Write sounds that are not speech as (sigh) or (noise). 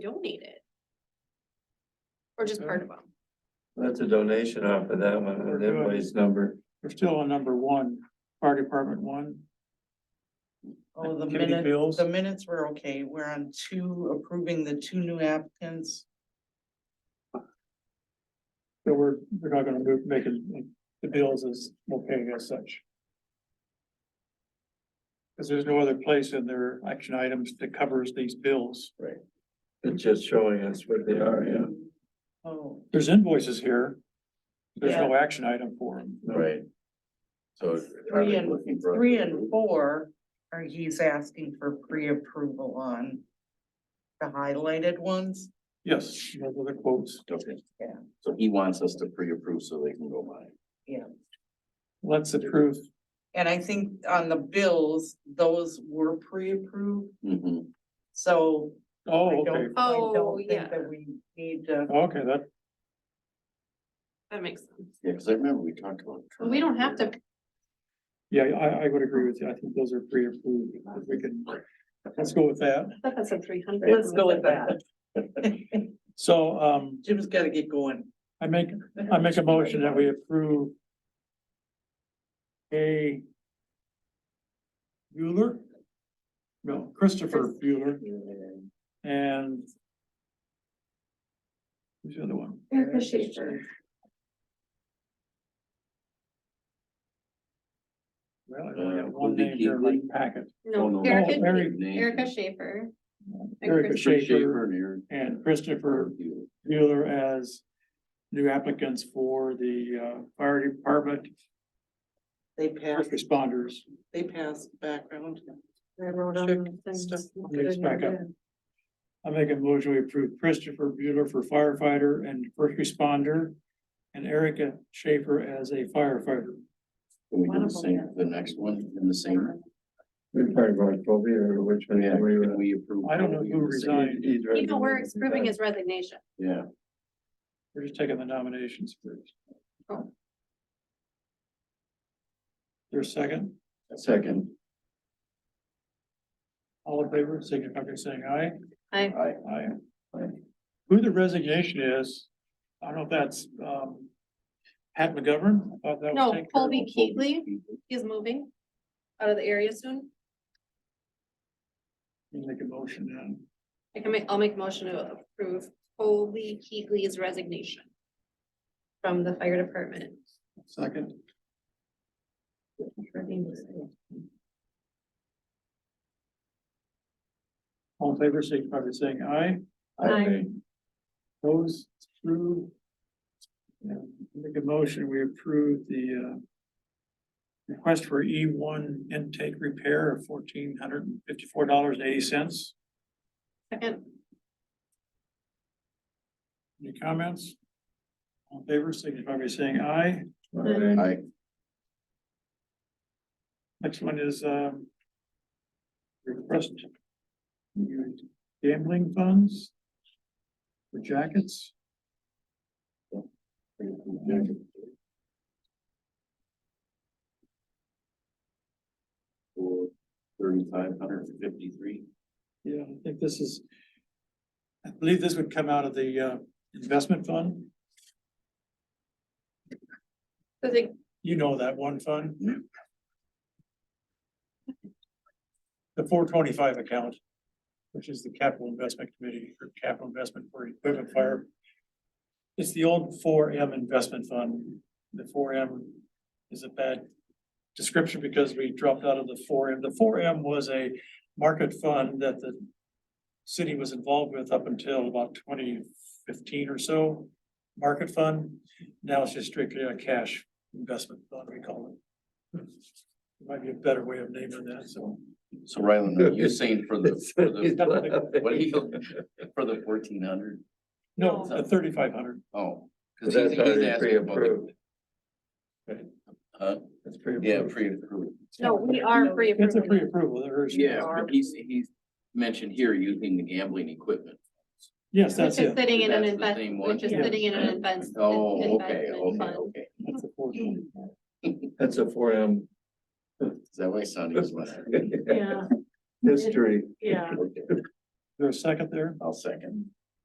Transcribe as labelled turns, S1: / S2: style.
S1: donate it. Or just part of them.
S2: That's a donation off of that one,
S3: We're
S2: an
S3: good.
S2: invoice number.
S3: We're still on number one, fire department one.
S4: Oh, the
S3: Activity
S4: minutes,
S3: bills.
S4: the minutes were okay. We're on two, approving the two new applicants.
S3: So we're, we're not gonna move, make it- the bills as okay as such. Cause there's no other place in their action items that covers these bills.
S2: It's just showing us what they are, yeah.
S4: Oh,
S3: There's invoices here. There's
S4: yeah,
S3: no action item for them.
S2: Right. So. are
S4: three
S2: we looking
S4: and,
S2: for-
S4: three and four are he's asking for pre-approval on. The highlighted ones.
S3: Yes, those are the quotes.
S5: Okay.
S4: Yeah.
S5: So he wants us to pre-approve so they can go by.
S3: Let's approve.
S4: And I think on the bills, those were pre-approved,
S5: Mhm.
S4: so. I
S3: Oh, okay,
S4: don't, I
S1: Oh,
S4: don't
S1: yeah.
S4: think that we need to.
S3: okay, that,
S1: That makes sense.
S5: Yeah, because I remember we talked about.
S1: But We don't have to,
S3: yeah, I, I would agree with you. I think those are pre-approved. If we can, let's go with that.
S1: I thought that's a three hundred.
S4: Let's go with that. (laughs)
S3: So, um,
S4: Jim's gotta get going.
S3: I make, I make a motion that we approve a Bueller? No, Christopher Bueller and who's the other one?
S1: Erica Schaefer.
S3: Well, I only
S5: Uh,
S3: have one
S5: Colby
S3: name here, in my packet.
S5: Oh,
S1: No,
S5: no.
S3: Erica-
S1: Erica,
S3: Eric-
S1: Erica Schaefer. And
S3: Erica
S1: Chris-
S3: Schaefer
S5: Schaefer and Eric.
S3: and Christopher Bueller as new applicants for the, uh, fire department
S4: They passed,
S3: first responders.
S4: they passed background.
S1: I wrote
S4: Check
S1: on the things.
S4: stuff.
S3: Let's back up. I make a motion to approve Christopher Bueller for firefighter and first responder and Erica Schaefer as a firefighter.
S5: Can we do the same, the next one in the same?
S2: We're talking about Kobe or which one?
S5: Yeah,
S2: we
S5: can
S2: were-
S5: we approve?
S3: I don't know who
S5: the same?
S3: resigned.
S2: He's
S1: You know, we're
S2: recommending
S1: approving
S2: that.
S1: his resignation.
S5: Yeah,
S3: We're just taking the nominations first.
S1: Oh.
S3: There's a second,
S2: Second,
S3: all in favor, signify by saying aye.
S1: I,
S5: I,
S3: Aye. Who the resignation is, I don't know if that's, um, Pat McGovern, I thought that was
S1: no,
S3: taken care of.
S1: Colby Keatley, he's moving out of the area soon.
S3: You Make a motion now.
S1: I can make, I'll make a motion to approve Colby Keatley's resignation from the fire department.
S3: Second. All in favor, signify by saying aye.
S1: Aye.
S3: Those through. Make a motion, we approve the uh. Request for E one intake repair of fourteen hundred and fifty-four dollars and eighty cents.
S1: Second,
S3: Any comments? All in favor, signify by saying aye.
S2: Aye.
S5: I,
S3: Next one is um. Request. Gambling funds. For jackets.
S5: for thirty-five hundred and fifty-three.
S3: Yeah, I think this is. I believe this would come out of the uh investment fund.
S1: so they-
S3: You know that one fund? The four twenty-five account, which is the capital investment committee for capital investment for equipment fire. It's the old four M investment fund. The four M is a bad description because we dropped out of the four M. The four M was a market fund that the city was involved with up until about twenty fifteen or so, market fund. Now it's just strictly a cash investment fund, we call it. Might be a better way of naming that, so.
S5: So Ryland,
S3: (laughs)
S5: are you saying for the, for
S2: He's (laughs)
S5: the,
S2: laughing.
S5: what do you, (laughs) for the fourteen hundred?
S3: No, the thirty-five hundred,
S5: Oh.
S2: That's
S5: Cause he's, he's
S2: already
S5: asking about the-
S2: pre-approved.
S5: huh?
S2: That's
S5: Yeah,
S2: pre-approved.
S5: pre-approved.
S1: no, we are free.
S3: it's a pre-approval, there is.
S5: Yeah, but he's, he's mentioned here using the gambling equipment.
S1: (laughs)
S3: Yes, that's
S1: Which is
S3: it.
S1: sitting in an
S5: That's the same
S1: investment,
S5: one.
S1: which is
S3: Yeah.
S1: sitting in an investment.
S5: Oh, okay, okay, okay.
S3: That's a 425.
S2: That's a four M
S5: Is that why Sonny was laughing?
S1: Yeah,
S2: history.
S1: yeah.
S5: (laughs) Okay.
S6: there a second there?
S3: I'll second.